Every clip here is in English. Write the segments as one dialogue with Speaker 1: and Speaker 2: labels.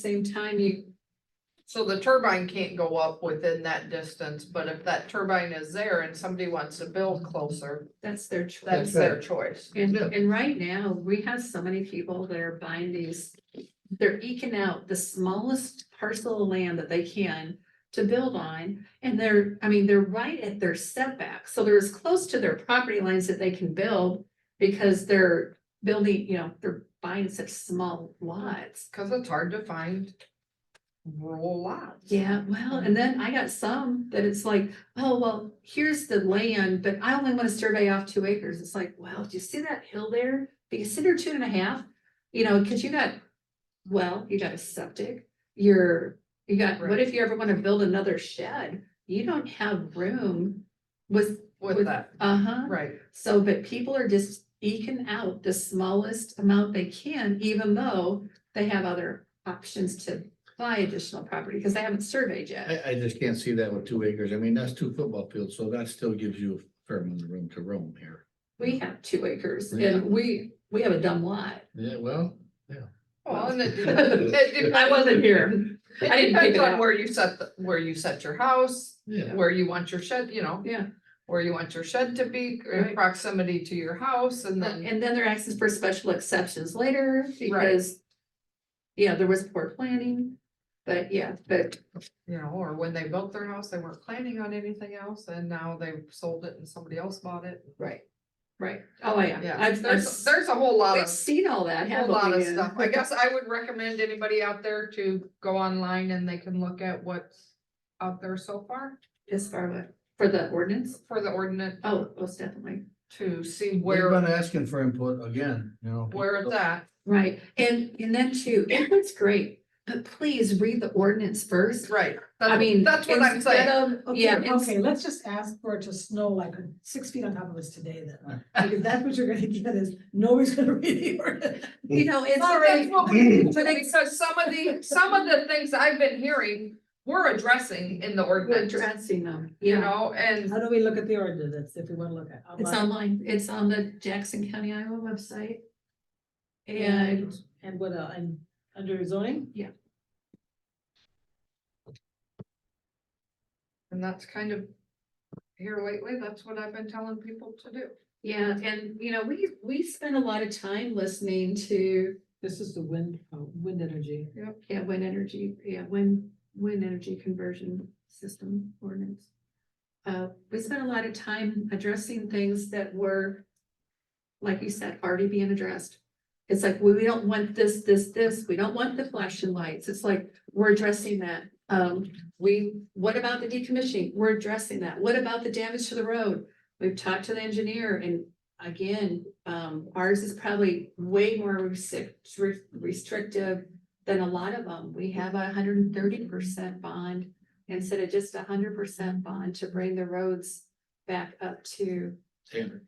Speaker 1: same time, you,
Speaker 2: So the turbine can't go up within that distance, but if that turbine is there and somebody wants to build closer,
Speaker 1: that's their choice.
Speaker 2: that's their choice.
Speaker 1: And, and right now, we have so many people that are buying these, they're eking out the smallest parcel of land that they can to build on, and they're, I mean, they're right at their setback, so they're as close to their property lines that they can build because they're building, you know, they're buying such small lots.
Speaker 2: Cause it's hard to find rural lots.
Speaker 1: Yeah, well, and then I got some that it's like, oh, well, here's the land, but I only want to survey off two acres. It's like, well, do you see that hill there? Do you see there two and a half? You know, because you got, well, you got a septic, you're, you got, what
Speaker 2: Right.
Speaker 1: if you ever want to build another shed? You don't have room with,
Speaker 2: With that,
Speaker 1: uh-huh.
Speaker 2: right,
Speaker 1: So, but people are just eking out the smallest amount they can, even though they have other options to buy additional property, because they haven't surveyed yet.
Speaker 3: I, I just can't see that with two acres. I mean, that's two football fields, so that still gives you a fair amount of room to roam here.
Speaker 1: We have two acres
Speaker 3: Yeah.
Speaker 1: and we, we have a dumb lot.
Speaker 3: Yeah, well,
Speaker 2: well, and it depends, it
Speaker 1: I wasn't here. I
Speaker 2: it
Speaker 1: didn't pick
Speaker 2: depends
Speaker 1: it
Speaker 2: on
Speaker 1: up.
Speaker 2: where you set, the- where you set your house,
Speaker 3: yeah,
Speaker 2: where you want your shed, you know.
Speaker 1: Yeah.
Speaker 2: Where you want your shed to be, or
Speaker 1: Right.
Speaker 2: proximity to your house and then,
Speaker 1: And then they're asking for special exceptions later because, yeah, there was poor planning, but yeah, but
Speaker 2: you know, or when they built their house, they weren't planning on anything else and now they've sold it and somebody else bought it.
Speaker 1: right, right. Oh, yeah.
Speaker 2: Yeah,
Speaker 1: I've, I've,
Speaker 2: there's, there's a whole lot
Speaker 1: we've
Speaker 2: of,
Speaker 1: seen all that,
Speaker 2: whole
Speaker 1: haven't
Speaker 2: lot
Speaker 1: we?
Speaker 2: of stuff. I guess I would recommend anybody out there to go online and they can look at what's out there so far
Speaker 1: As far what, for the ordinance?
Speaker 2: for the ordinance
Speaker 1: Oh, most definitely,
Speaker 2: to see
Speaker 3: we've been
Speaker 2: where,
Speaker 3: asking for input again, you know.
Speaker 2: where it's at.
Speaker 1: right, and, and then too, input's great, but please read the ordinance first.
Speaker 2: Right.
Speaker 1: I mean.
Speaker 2: That's what I'm
Speaker 1: instead
Speaker 2: saying.
Speaker 1: of-
Speaker 4: Okay,
Speaker 1: Yeah, it's-
Speaker 4: okay, let's just ask for it to snow like six feet on top of us today then, because that's what you're gonna get is, nobody's gonna read the ordinance.
Speaker 1: you know, it's
Speaker 2: Sorry,
Speaker 1: already,
Speaker 2: well, Because some of the, some of the things I've been hearing, we're addressing in the
Speaker 1: we're
Speaker 2: ordinance,
Speaker 1: addressing them,
Speaker 2: you
Speaker 1: you know,
Speaker 2: know, and
Speaker 4: How do we look at the ordinance if we wanna look at?
Speaker 1: it's
Speaker 4: online?
Speaker 1: online, it's on the Jackson County Iowa website. And
Speaker 4: And what, uh, and under zoning?
Speaker 2: and that's kind of here lately, that's what I've been telling people to do.
Speaker 1: yeah, and you know, we, we spend a lot of time listening to,
Speaker 4: This is the wind, uh, wind energy.
Speaker 1: yeah, wind energy, yeah, wind, wind energy conversion system ordinance. Uh, we spent a lot of time addressing things that were, like you said, already being addressed. It's like, we, we don't want this, this, this, we don't want the flashing lights, it's like, we're addressing that. Um, we, what about the decommissioning? We're addressing that, what about the damage to the road? We've talked to the engineer and again, um, ours is probably way more restrict- restrictive than a lot of them. We have a hundred and thirty percent bond instead of just a hundred percent bond to bring the roads back up to,
Speaker 3: Standard.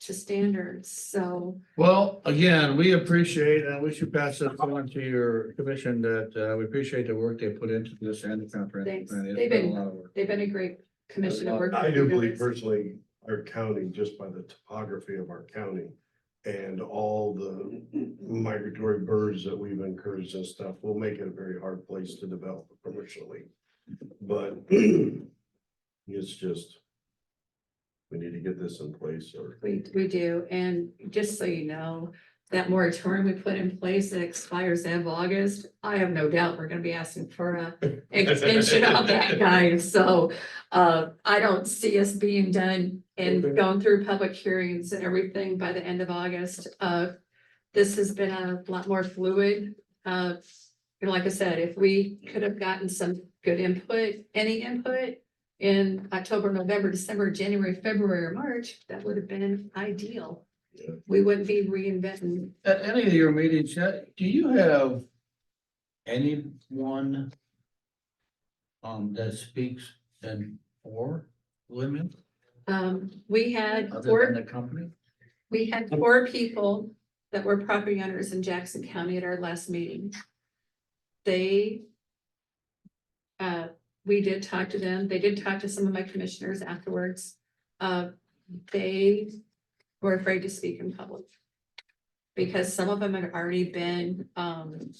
Speaker 1: to standards. So,
Speaker 3: Well, again, we appreciate, and we should pass this on to your commission that, uh, we appreciate the work they put into this and the comprehensive
Speaker 1: Thanks.
Speaker 3: plan. It's
Speaker 1: They've
Speaker 3: been a
Speaker 1: been-
Speaker 3: lot of work.
Speaker 1: they've been a great commission to work.
Speaker 5: I
Speaker 1: with.
Speaker 5: do believe personally, our county, just by the topography of our county and all the migratory birds that we've encouraged and stuff, will make it a very hard place to develop commercially. But it's just, we need to get this in place or
Speaker 1: We, we do. And just so you know, that moratorium we put in place that expires end of August, I have no doubt we're gonna be asking for a extension of that guy. So uh, I don't see us being done and
Speaker 5: Okay.
Speaker 1: going through public hearings and everything by the end of August. Uh, this has been a lot more fluid. Uh, and like I said, if we could have gotten some good input, any input in October, November, December, January, February, or March, that would have been ideal.
Speaker 5: Yeah.
Speaker 1: We wouldn't be reinventing.
Speaker 3: At any of your meetings, uh, do you have anyone um, that speaks in for women
Speaker 1: Um, we had
Speaker 3: other
Speaker 1: four
Speaker 3: than the company?
Speaker 1: We had four people that were property owners in Jackson County at our last meeting. They. Uh, we did talk to them. They did talk to some of my commissioners afterwards. Uh, they were afraid to speak in public. Because some of them had already been, um,